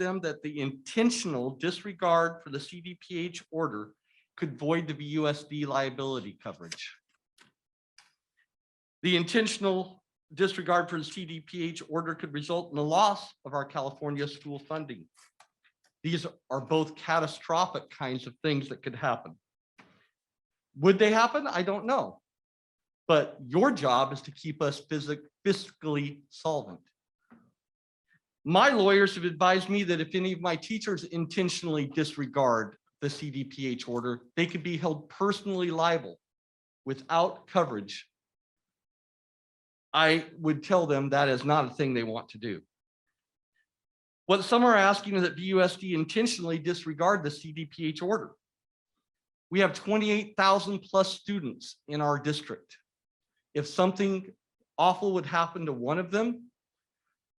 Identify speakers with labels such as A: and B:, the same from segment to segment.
A: them that the intentional disregard for the CDPH order could void the BUSD liability coverage. The intentional disregard for the CDPH order could result in the loss of our California school funding. These are both catastrophic kinds of things that could happen. Would they happen? I don't know. But your job is to keep us physic- fiscally solvent. My lawyers have advised me that if any of my teachers intentionally disregard the CDPH order, they could be held personally liable without coverage. I would tell them that is not a thing they want to do. What some are asking is that BUSD intentionally disregard the CDPH order. We have twenty-eight thousand plus students in our district. If something awful would happen to one of them,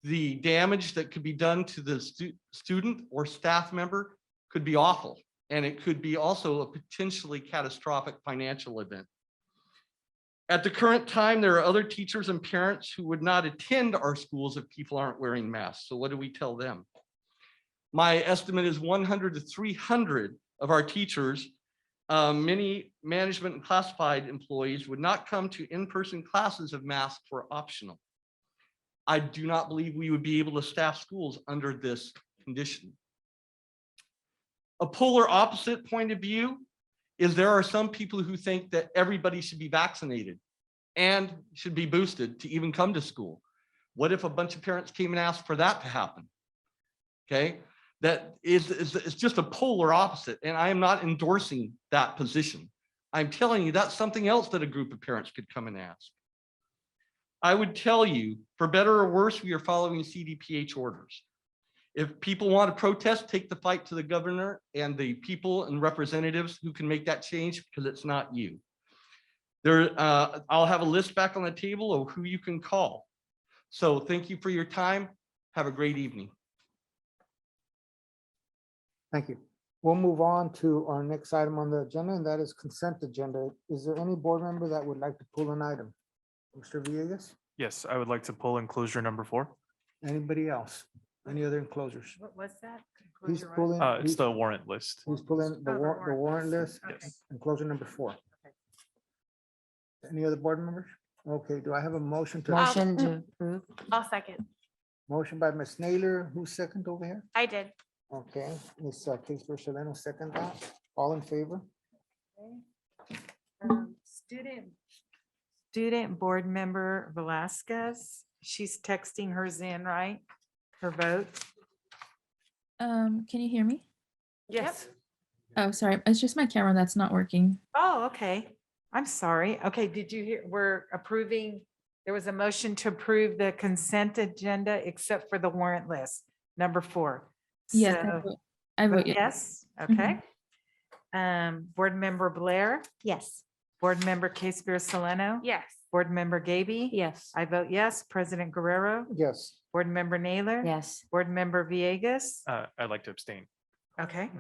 A: the damage that could be done to the stu- student or staff member could be awful. And it could be also a potentially catastrophic financial event. At the current time, there are other teachers and parents who would not attend our schools if people aren't wearing masks. So what do we tell them? My estimate is one hundred to three hundred of our teachers uh, many management and classified employees would not come to in-person classes if masks were optional. I do not believe we would be able to staff schools under this condition. A polar opposite point of view is there are some people who think that everybody should be vaccinated and should be boosted to even come to school. What if a bunch of parents came and asked for that to happen? Okay, that is, is, it's just a polar opposite, and I am not endorsing that position. I'm telling you, that's something else that a group of parents could come and ask. I would tell you, for better or worse, we are following CDPH orders. If people want to protest, take the fight to the governor and the people and representatives who can make that change, because it's not you. There, uh, I'll have a list back on the table of who you can call. So thank you for your time. Have a great evening.
B: Thank you. We'll move on to our next item on the agenda, and that is consent agenda. Is there any board member that would like to pull an item? Mr. Villegas,
C: Yes, I would like to pull enclosure number four.
B: anybody else? Any other enclosures?
D: What was that?
B: He's
D: Close your eyes.
B: pulling,
C: Uh, it's
B: he's
C: the warrant list.
B: he's pulling the
D: Oh, the
B: warrant, the warrant
D: warrant
B: list,
D: list. Okay.
C: Yes.
B: enclosure number four.
D: Okay.
B: Any other board members? Okay, do I have a motion to,
E: Um,
D: Motion.
E: to approve.
D: I'll second.
B: motion by Ms. Naylor, who's second over here?
D: I did.
B: Okay, Ms. Kingsbury Solano, second that. All in favor?
D: Um, Student.
E: Student Board Member Velasquez, she's texting hers in, right? Her vote.
F: Um, can you hear me?
D: Yes.
F: Oh, sorry. It's just my camera that's not working.
E: Oh, okay. I'm sorry. Okay, did you hear, we're approving, there was a motion to approve the consent agenda except for the warrant list, number four.
F: Yes, I
E: So-
F: vote- I vote yes.
E: Yes,
F: Mm-hmm.
E: okay. Um, Board Member Blair,
G: Yes.
E: Board Member Case Beer Soleno.
D: Yes.
E: Board Member Gaby.
G: Yes.
E: I vote yes. President Guerrero,
B: Yes.
E: Board Member Naylor.
G: Yes.
E: Board Member Villegas.
C: Uh, I'd like to abstain.
E: Okay.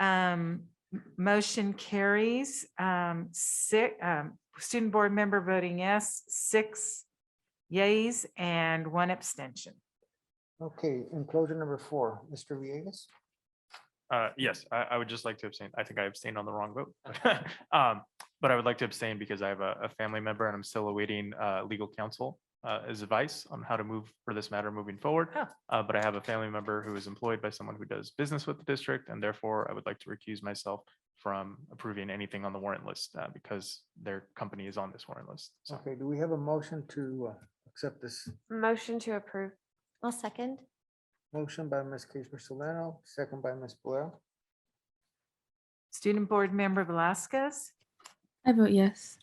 E: Um, m- motion carries, um, six, um, student board member voting yes, six yays and one abstention.
B: Okay, enclosure number four, Mr. Villegas?
C: Uh, yes, I, I would just like to abstain. I think I abstained on the wrong vote. Um, but I would like to abstain because I have a, a family member and I'm still awaiting, uh, legal counsel, uh, as advice on how to move for this matter moving forward.
E: Oh.
C: Uh, but I have a family member who is employed by someone who does business with the district and therefore I would like to recuse myself from approving anything on the warrant list, uh, because their company is on this warrant list. So
B: Okay, do we have a motion to uh, accept this?
D: Motion to approve.
G: I'll second.
B: Motion by Ms. Cashmere Solano, second by Ms. Blair.
E: Student board member Velasquez,
F: I vote yes.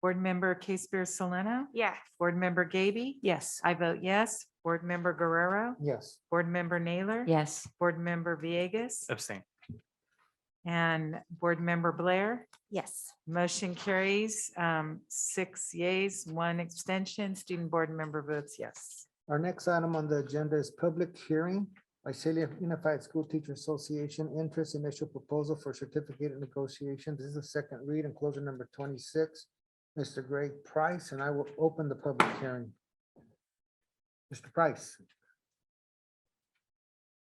E: board member Case Beer Soleno,
D: Yes.
E: board member Gaby.
G: Yes.
E: I vote yes. Board member Guerrero,
B: Yes.
E: board member Naylor.
G: Yes.
E: Board member Villegas
C: abstain.
E: and board member Blair.
G: Yes.
E: Motion carries, um, six yays, one abstention. Student board member votes yes.
B: Our next item on the agenda is public hearing. Visalia Unified School Teacher Association interest initial proposal for certificate of negotiation. This is the second read, enclosure number twenty-six. Mr. Greg Price, and I will open the public hearing. Mr. Price,